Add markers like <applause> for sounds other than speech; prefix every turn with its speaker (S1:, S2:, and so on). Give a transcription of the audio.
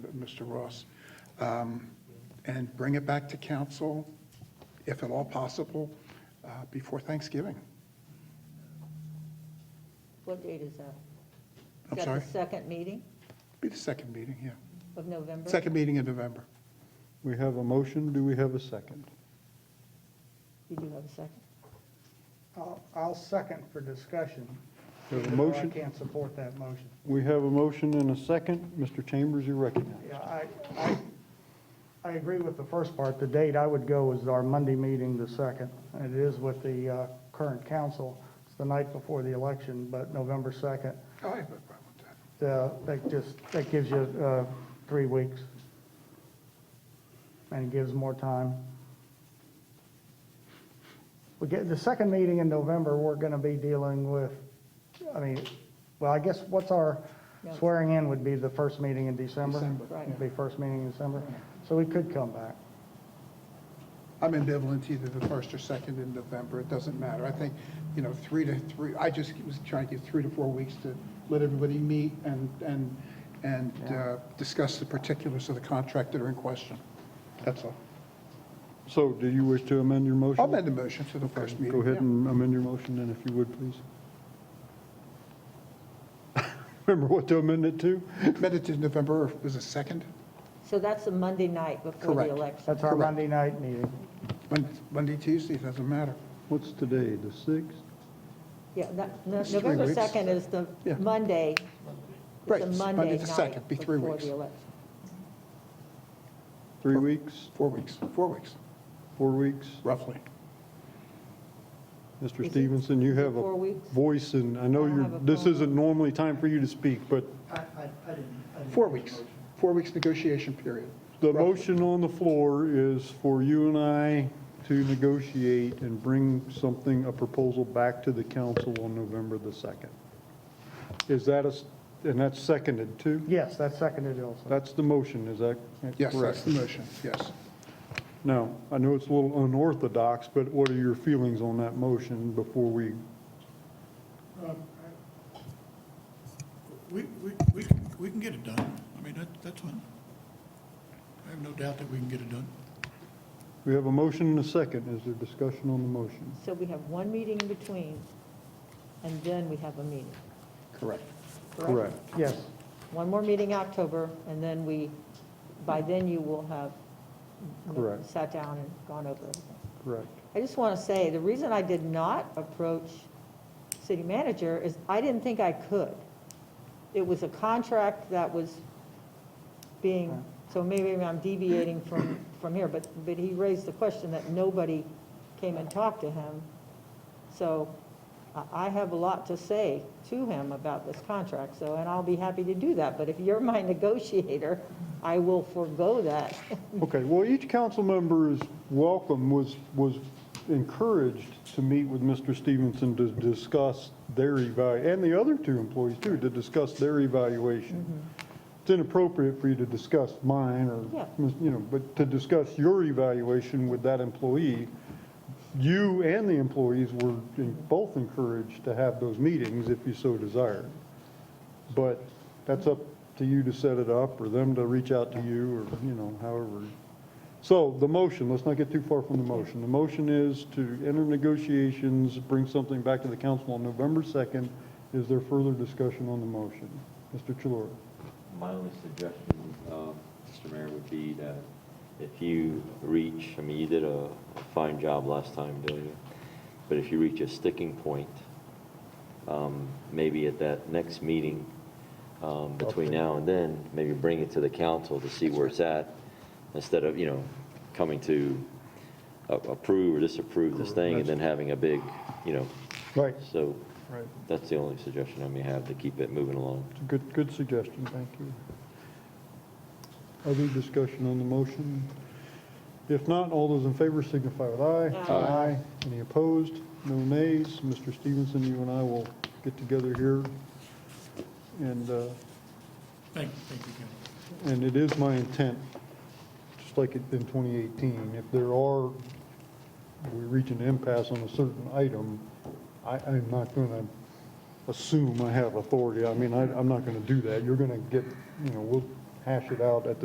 S1: Mr. Ross, um, and bring it back to council, if at all possible, uh, before Thanksgiving.
S2: What date is that?
S1: I'm
S2: Is that
S1: sorry?
S2: the second meeting
S1: Be the second meeting, yeah.
S2: of November?
S1: Second meeting in November.
S3: We have a motion, do we have a second?
S2: You do have a second?
S4: I'll, I'll second for discussion.
S3: There's a
S4: even though
S3: motion.
S4: I can't support that motion.
S3: We have a motion and a second. Mr. Chambers, you recognize.
S4: Yeah, I, I, I agree with the first part. The date I would go is our Monday meeting, the second. And it is with the uh, current council. It's the night before the election, but November second.
S1: Oh, I have no problem with that.
S4: That just, that gives you uh, three weeks. And it gives more time. We get, the second meeting in November, we're going to be dealing with, I mean, well, I guess what's our
S2: No.
S4: swearing in would be the first meeting in December.
S1: December.
S2: Right.
S4: It'd be first meeting in December. So we could come back.
S1: I'm ambivalent to either the first or second in November, it doesn't matter. I think, you know, three to three, I just was trying to give three to four weeks to let everybody meet and, and, and uh, discuss the particulars of the contract that are in question. That's all.
S3: So do you wish to amend your motion?
S1: I'll amend the motion to the first meeting.
S3: Go ahead
S1: yeah.
S3: and amend your motion then, if you would, please. <laughs> Remember what to amend it to?
S1: Amend it to November, or was it second?
S2: So that's the Monday night before the
S1: Correct.
S2: election.
S4: That's our
S1: Correct.
S4: Monday night meeting.
S1: Mon- Monday, Tuesday, it doesn't matter.
S3: What's today, the 6th?
S2: Yeah, that, no-
S1: It's three
S2: November
S1: weeks.
S2: 2nd is the
S1: Yeah.
S2: Monday. It's
S1: Right,
S2: the
S1: it's Monday
S2: Monday
S1: the
S2: night
S1: 2nd, be three
S2: before
S1: weeks.
S2: the election.
S3: Three weeks,
S1: Four weeks, four weeks,
S3: four weeks?
S1: roughly.
S3: Mr.
S2: Is it-
S3: Stevenson, you
S2: is it
S3: have
S2: four
S3: a
S2: weeks?
S3: voice, and I know
S2: I don't
S3: you're,
S2: have a
S3: this
S2: problem.
S3: isn't normally time for you to speak, but
S5: I, I, I didn't. I didn't
S1: Four
S5: make a
S1: weeks,
S5: motion.
S1: four weeks negotiation period.
S3: The
S1: Roughly.
S3: motion on the floor is for you and I to negotiate and bring something, a proposal back to the council on November the 2nd. Is that a, s- and that's seconded too?
S4: Yes, that's seconded also.
S3: That's the motion, is that correct?
S1: Yes, that's the motion, yes.
S3: Now, I know it's a little unorthodox, but what are your feelings on that motion before we,
S6: We, we, we can, we can get it done. I mean, that, that's fine. I have no doubt that we can get it done.
S3: we have a motion and a second. Is there discussion on the motion?
S2: So we have one meeting in between, and then we have a meeting.
S1: Correct.
S3: Correct.
S4: Yes,
S2: One more meeting October, and then we, by then you will have you know,
S3: Correct.
S2: sat down and gone over everything.
S3: Correct.
S2: I just want to say, the reason I did not approach city manager is I didn't think I could. It was a contract that was being, so maybe I'm deviating from, from here, but, but he raised the question that nobody came and talked to him. So I, I have a lot to say to him about this contract, so, and I'll be happy to do that. But if you're my <laughs> negotiator, I will forego that. <laughs>
S3: Okay, well, each council member is welcome, was, was encouraged to meet with Mr. Stevenson to discuss their evalu, and the other two employees too, to discuss their evaluation. It's inappropriate for you to discuss mine
S2: Yeah.
S3: or, you know, but to discuss your evaluation with that employee. You and the employees were both encouraged to have those meetings if you so desired. But that's up to you to set it up, or them to reach out to you, or, you know, however. So the motion, let's not get too far from the motion. The motion is to enter negotiations, bring something back to the council on November 2nd. Is there further discussion on the motion? Mr. Chilora?
S7: My only suggestion, um, Mr. Mayor, would be that if you reach, I mean, you did a a fine job last time, doing it, But if you reach a sticking point, um, maybe at that next meeting um, between now and then, maybe bring it to the council to see where it's at, instead of, you know, coming to a- approve or disapprove this thing and then having a big, you know,
S3: Right.
S7: so
S3: Right.
S7: that's the only suggestion I may have to keep it moving along.
S3: It's a good, good suggestion, thank you. Other discussion on the motion? If not, all those in favor signify with aye. Aye. Any opposed? No nays. Mr. Stevenson, you and I will get together here. And, uh,
S6: Thank, thank you, Ken.
S3: and it is my intent, just like it in 2018, if there are, we reach an impasse on a certain item, I, I'm not going to assume I have authority. I mean, I, I'm not going to do that. You're going to get, you know, we'll hash it out at the